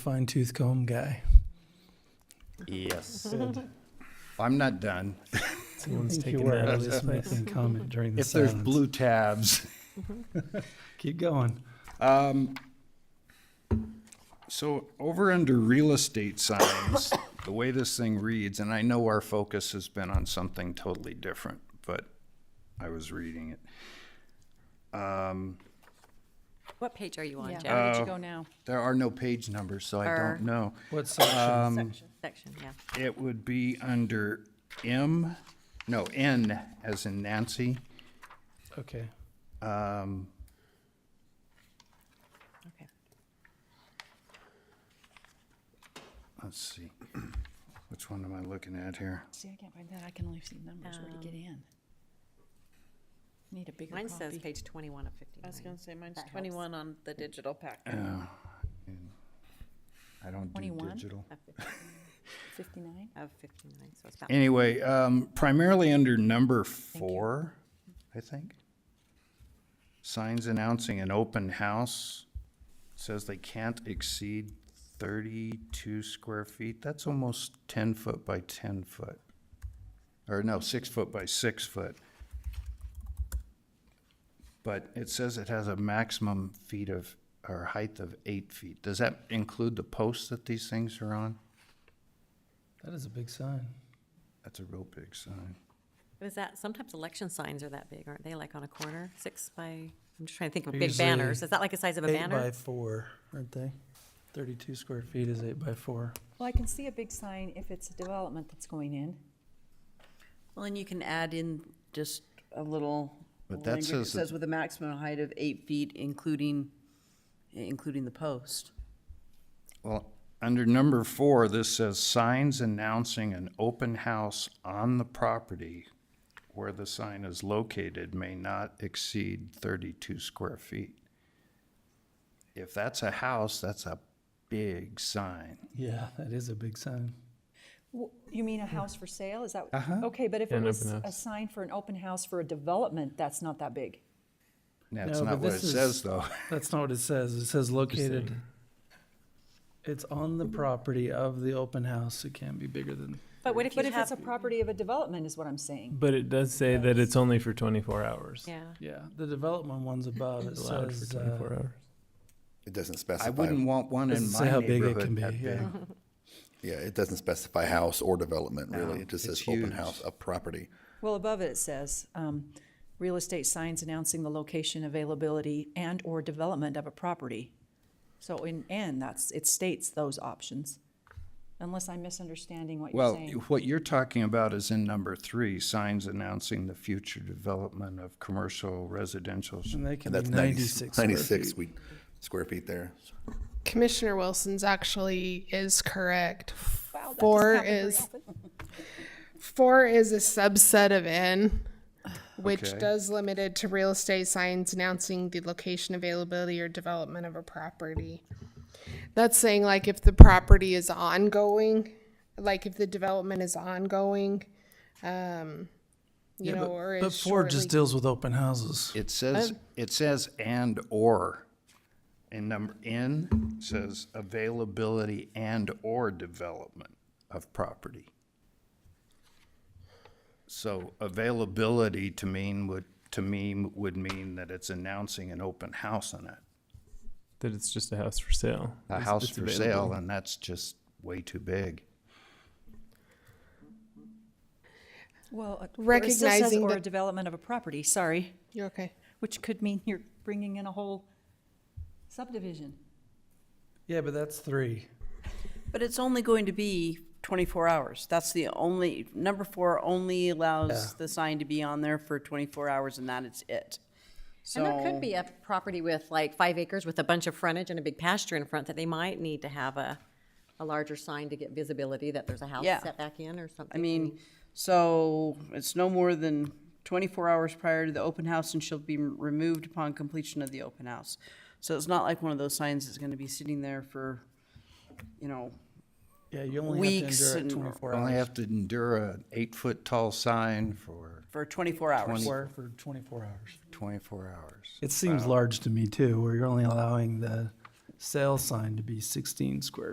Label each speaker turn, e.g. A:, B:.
A: fine tooth comb guy.
B: Yes. I'm not done.
A: Someone's
C: think you
A: taking
C: were.
A: that out of this making comment during the
B: If there's
A: silence.
B: blue tabs.
A: Keep going.
B: Um, So over under real estate signs, the way this thing reads, and I know our focus has been on something totally different, but I was reading it. Um,
D: What page are you on,
E: Yeah.
D: Jeff?
E: Where did
B: Uh,
E: you go now?
B: There are no page numbers, so I
D: Or-
B: don't know.
A: What section?
D: Section, yeah.
B: It would be under M, no, N as in Nancy.
A: Okay.
B: Um,
D: Okay.
B: Let's see. Which one am I looking at here?
E: See, I can't find that. I can only see numbers. Where to get in? Need a bigger
D: Mine says
E: copy.
D: page 21 of
C: I was
D: 59.
C: gonna say mine's
E: That helps.
C: twenty-one on
D: Mm.
C: the digital pack.
B: I don't do
E: 21?
B: digital.
D: Of 50
E: Fifty-nine?
D: Of 59, so it's about,
B: Anyway, um, primarily under number four, I think. Signs announcing an open house says they can't exceed thirty-two square feet. That's almost ten foot by ten foot. Or no, six foot by six foot. But it says it has a maximum feet of, or height of eight feet. Does that include the posts that these things are on?
A: That is a big sign.
B: That's a real big sign.
D: is that, sometimes election signs are that big, aren't they, like on a corner, six by, I'm just trying to think of
A: They're
D: big banners.
A: usually
D: Is that like the size of a
A: Eight by
D: banner?
A: four, aren't they? Thirty-two square feet is eight by four.
E: Well, I can see a big sign if it's a development that's going in.
C: Well, and you can add in just a little.
B: But that
C: language. It
B: says that-
C: Says with a maximum height of eight feet, including, including the post.
B: Well, under number four, this says signs announcing an open house on the property where the sign is located may not exceed thirty-two square feet. If that's a house, that's a big sign.
A: Yeah, that is a big sign.
E: W- You mean a house for sale? Is that?
D: Uh-huh.
E: Okay, but if it
F: An
E: was
F: open
E: a sign for an open house for a development, that's not that big.
B: That's
A: No,
B: not
A: but
B: what it
A: this is-
B: says, though.
A: That's not what it says. It says located. It's on the property of the open house. It can't be bigger than,
D: But what if you
E: But if it's
D: have,
E: a property of a development is what I'm saying.
F: But it does say that it's only for 24 hours.
D: yeah,
A: yeah, the development one's above. It
F: Allowed for
A: says,
F: 24
A: uh,
F: hours.
G: It doesn't
B: I
G: specify.
B: wouldn't want one in
A: Doesn't
B: my
A: say how big it can
B: neighborhood
A: be,
B: that big.
A: yeah.
G: Yeah, it doesn't specify house or development, really.
B: No,
G: It just
B: it's
G: says open
B: huge.
G: house of property.
E: Well, above it, it says, um, real estate signs announcing the location, availability, and/or development of a property. So in and, that's, it states those options, unless I'm misunderstanding what you're
B: Well,
E: saying.
B: what you're talking about is in number three, signs announcing the future development of commercial residential
A: and they can
G: And
A: be
G: that's
A: ninety-six
G: 96
A: square
G: 96
A: feet.
G: we- square feet there.
H: Commissioner Wilson's actually is correct.
E: Wow, that doesn't
H: Four
E: happen very
H: is
E: often.
H: four is a subset of N, which
B: Okay.
H: does limit it to real estate signs announcing the location, availability, or development of a property. That's saying like if the property is ongoing, like if the development is ongoing, um, you
A: Yeah,
H: know,
A: but-
H: or is
A: But four just
H: shortly-
A: deals with open houses.
B: It says, it says and/or. And number N says availability and/or development of property. So availability to mean would, to me, would mean that it's announcing an open house on it.
F: That it's just a house for sale.
B: A
F: It's-
B: house
F: it's
B: for
F: available.
B: sale, and that's just way too big.
E: Well, uh, or it still says
H: Recognizing
E: Or
H: that-
E: a development of a property, sorry,
H: You're okay.
E: which could mean you're bringing in a whole subdivision.
A: Yeah, but that's three.
C: But it's only going to be twenty-four hours. That's the only, number four only allows
A: Yeah.
C: the sign to be on there for twenty-four hours and that is it.
D: and there
C: So-
D: could be a property with like five acres with a bunch of frontage and a big pasture in front that they might need to have a, a larger sign to get visibility that there's a house
C: Yeah.
D: set back in or
C: I
D: something.
C: mean, so it's no more than twenty-four hours prior to the open house and shall be removed upon completion of the open house. So it's not like one of those signs that's gonna be sitting there for, you know,
A: Yeah, you only have
C: Weeks
A: to endure it
C: and-
A: twenty-four
B: Only
A: hours.
B: have to endure an eight-foot-tall sign for
C: for twenty-four hours.
A: Four for twenty-four hours.
B: twenty-four hours.
A: It seems large to me too, where you're only allowing the sale sign to be sixteen square